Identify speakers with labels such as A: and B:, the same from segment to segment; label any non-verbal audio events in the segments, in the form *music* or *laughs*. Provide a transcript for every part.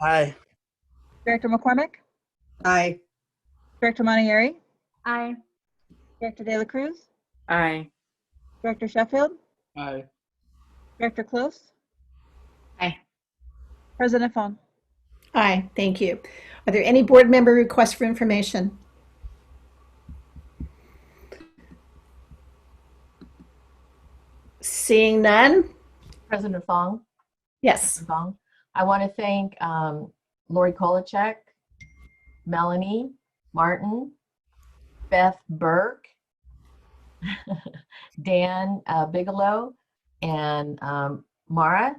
A: Aye.
B: Director McCormick?
C: Aye.
B: Director Montieri?
D: Aye.
B: Director De La Cruz?
E: Aye.
B: Director Sheffield?
A: Aye.
B: Director Close?
E: Aye.
B: President Fong?
C: Aye, thank you. Are there any board member requests for information? Seeing none?
F: President Fong,
C: Yes.
F: Fong, I want to thank um, Lori Kolacek, Melanie Martin, Beth Burke, *laughs* Dan uh, Bigelow, and um, Mara.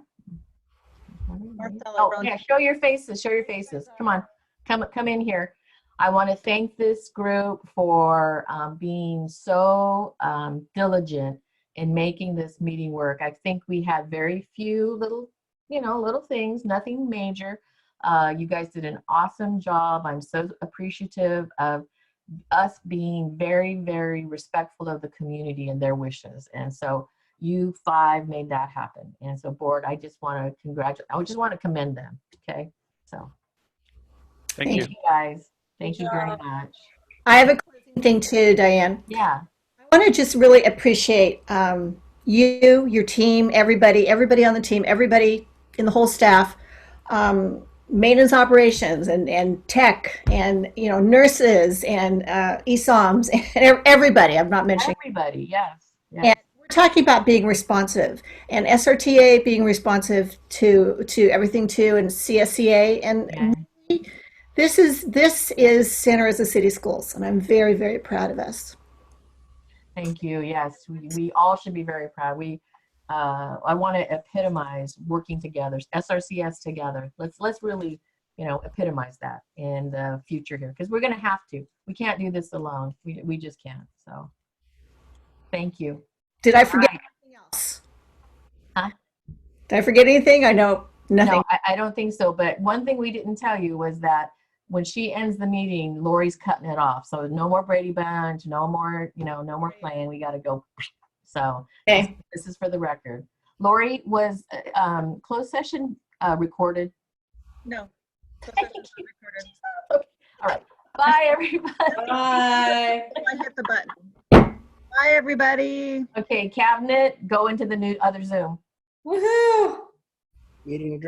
B: Marcella
F: Oh,
B: Roach.
F: yeah, show your faces, show your faces. Come on, come, come in here. I want to thank this group for um, being so um, diligent in making this meeting work. I think we had very few little, you know, little things, nothing major. Uh, you guys did an awesome job. I'm so appreciative of us being very, very respectful of the community and their wishes. And so you five made that happen. And so board, I just want to congratulate, I just want to commend them. Okay. So
G: Thank you.
F: you guys. Thank you very much.
C: I have a closing thing too, Diane.
F: Yeah.
C: I want to just really appreciate um, you, your team, everybody, everybody on the team, everybody in the whole staff, um, maintenance operations and, and tech and, you know, nurses and uh, ESOMs *laughs* and everybody. I'm not mentioning.
F: Everybody. Yes. yes.
C: And we're talking about being responsive and SRTA being responsive to to everything too and CSCA and
F: Yeah.
C: this is this is Santa Rosa City Schools and I'm very very proud of us.
F: Thank you. Yes, we, we all should be very proud. We, uh, I want to epitomize working together, SRCS together. Let's let's really, you know, epitomize that in the future here because we're going to have to. We can't do this alone. We we just can't. So, thank you.
C: Did I forget
F: Alright.
C: anything else?
F: Huh?
C: Did I forget anything? I know nothing.
F: No, I, I don't think so. But one thing we didn't tell you was that when she ends the meeting, Lori's cutting it off. So no more Brady Bunch, no more, you know, no more playing. We got to go. So
C: Okay.
F: this is for the record. Lori was uh, um, closed session uh, recorded.
B: No.
F: Thank you. Bye, everybody.
E: Bye.
B: I hit the button. Bye, everybody.
F: Okay, cabinet, go into the new other Zoom.
E: Woohoo.
A: Meeting adjourned.